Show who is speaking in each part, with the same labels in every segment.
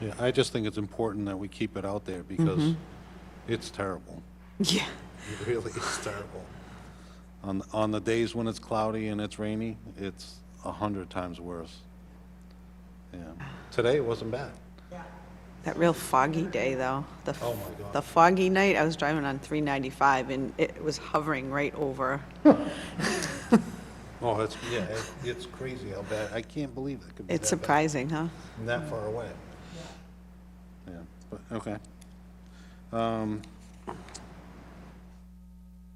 Speaker 1: Yeah, I just think it's important that we keep it out there because it's terrible.
Speaker 2: Yeah.
Speaker 1: Mm-hmm. It really is terrible. On, on the days when it's cloudy and it's rainy, it's a hundred times worse. Yeah. Today it wasn't bad.
Speaker 2: That real foggy day, though. The f-
Speaker 1: Oh, my God.
Speaker 2: The foggy night, I was driving on 395, and it was hovering right over.
Speaker 1: Oh, it's, yeah, it- it's crazy how bad, I can't believe it could be that bad.
Speaker 2: It's surprising, huh?
Speaker 1: and That far away. Yeah, but, okay. Um,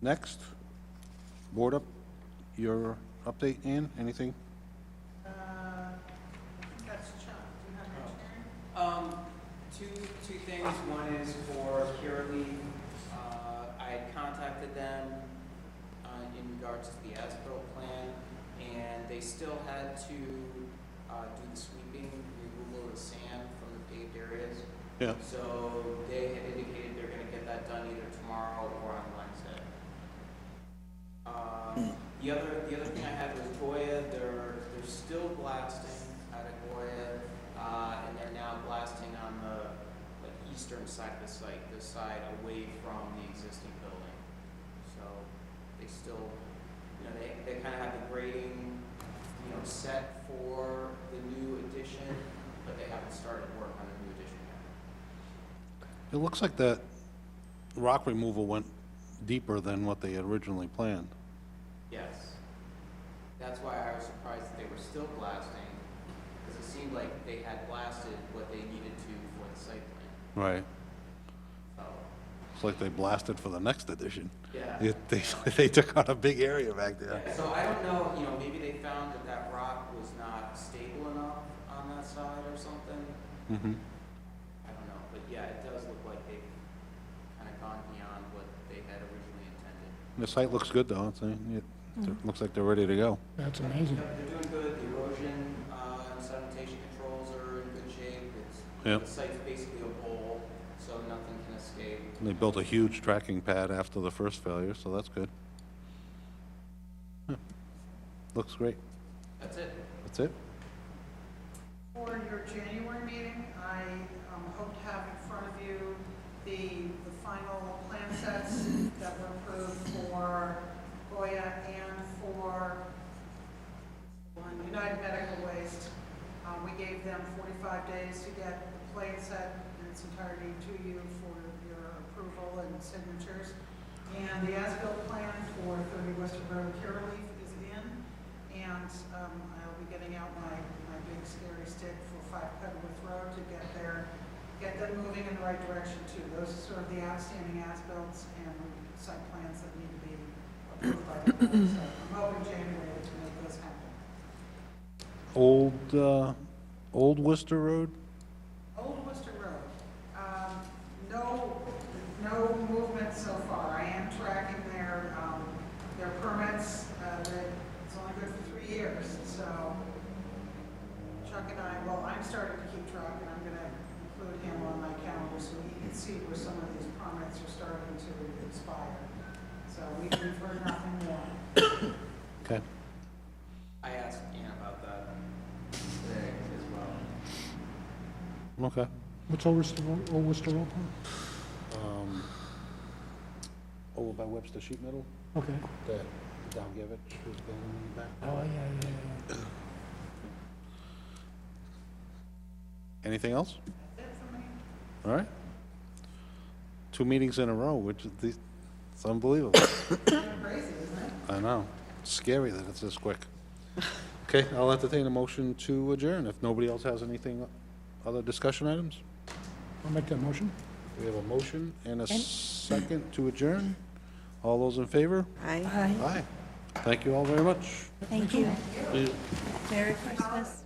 Speaker 1: Next, board up, your update, Ann, anything?
Speaker 3: Um, two, two things. One is for Curaleaf. Uh, I contacted them uh, in regards to the ASBIL plan, and they still had to uh, do the sweeping, removal of the sand from the paved areas.
Speaker 1: Yeah.
Speaker 3: So they had indicated they're gonna get that done either tomorrow or on Wednesday. Um, The other, the other thing I had was Goya, they're, they're still blasting out of Goya, uh, and they're now blasting on the, like, eastern side of the site, the side away from the existing building. So they still, you know, they, they kind of have the grading, you know, set for the new addition, but they haven't started work on the new addition yet.
Speaker 1: It looks like that rock removal went deeper than what they originally planned.
Speaker 3: Yes. That's why I was surprised that they were still blasting, because it seemed like they had blasted what they needed to for the site plan.
Speaker 1: Right.
Speaker 3: So,
Speaker 1: It's like they blasted for the next edition.
Speaker 3: yeah.
Speaker 1: It- They, they took out a big area back there.
Speaker 3: Yeah, So I don't know, you know, maybe they found that that rock was not stable enough on that side or something.
Speaker 1: Mhm.
Speaker 3: I don't know, but yeah, it does look like they've kind of gone beyond what they had originally intended.
Speaker 1: The site looks good, though. It's, uh, It it looks like they're ready to go.
Speaker 4: That's amazing.
Speaker 3: Yep, they're doing good, the erosion, uh, and sedimentation controls are in good shape, it's,
Speaker 1: Yep.
Speaker 3: the site's basically a bowl, so nothing can escape.
Speaker 1: And They built a huge tracking pad after the first failure, so that's good. Huh. Looks great.
Speaker 3: That's it.
Speaker 1: That's it?
Speaker 5: For your January meeting, I um, hope to have in front of you the, the final plan sets that were approved for Goya and for um, United Medical Waste. Uh, We gave them 45 days to get the plan set in its entirety to you for your approval and signatures. And the as-built plan for 30 Western Road Curaleaf is in. And um, I'll be getting out my, my big scary stick for Five Pedalworth Road to get there, get them moving in the right direction too. Those are sort of the outstanding as-bills and site plans that need to be approved by the board. So I'm hoping January to make those happen.
Speaker 1: Old, uh, Old Worcester Road?
Speaker 5: Old Worcester Road, um, no, no movement so far. I am tracking their, um, their permits, uh, that it's only good for three years, so Chuck and I, well, I'm starting to keep track, and I'm gonna include him on my calendar so he can see where some of these permits are starting to expire. So we- we've heard nothing more.
Speaker 1: Okay.
Speaker 3: I asked Ann about that today as well.
Speaker 1: Okay.
Speaker 4: What's Old Worcester, Road- Old Worcester Road?
Speaker 1: Um, Over by Webster Sheet Metal,
Speaker 4: Okay.
Speaker 1: that Dalgevich was building in the
Speaker 4: Oh,
Speaker 1: back.
Speaker 4: yeah, yeah, yeah.
Speaker 1: Anything else?
Speaker 5: That's it for me.
Speaker 1: All right. Two meetings in a row, which is, the- it's unbelievable.
Speaker 5: Kinda Crazy, isn't it?
Speaker 1: I know. Scary that it's this quick. Okay, I'll entertain a motion to adjourn if nobody else has anything, other discussion items.
Speaker 4: I'll make that motion.
Speaker 1: We have a motion and a second to adjourn. All those in favor?
Speaker 2: I.
Speaker 1: Aye. Thank you all very much.
Speaker 6: Thank you. Merry Christmas.